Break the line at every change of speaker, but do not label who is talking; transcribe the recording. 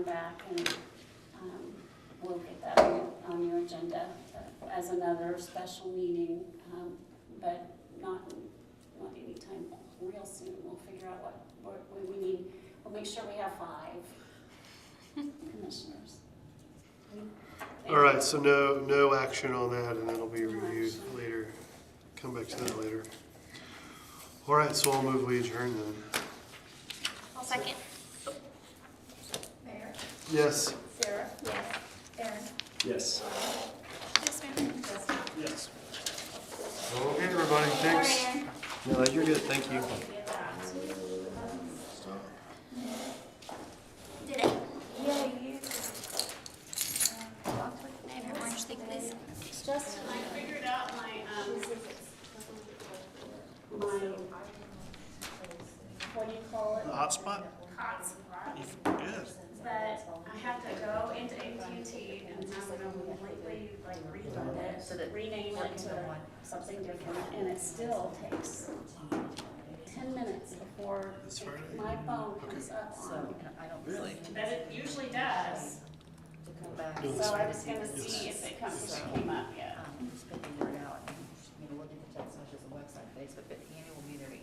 back and um, we'll get that on- on your agenda uh, as another special meeting, um, but not, not anytime real soon. We'll figure out what, what we need. We'll make sure we have five commissioners.
All right, so no, no action on that, and that'll be reviewed later. Come back to that later. All right, so I'll move we adjourn then.
I'll second.
Mayor,
Yes?
Sarah? Yes. Aaron?
Yes.
Yes, ma'am.
Yes.
Okay, everybody, thanks.
Sorry, Erin.
No, you're good, thank you.
Did it?
Yeah, you.
I have your orange thing, please.
Justin, I figured out my, um, my, what do you call it?
Hotspot?
Hotspot.
Good.
But I have to go into AT&T and have them completely like refund it, rename it to something different, and it still takes ten minutes before
This Friday?
my phone comes up on.
Really?
But it usually does,
No, this
so I'm
Friday.
just gonna see if it comes, if it came up yet.
um, spending it out, and, you know, look at the text messages and website, Facebook, but Annie will be there to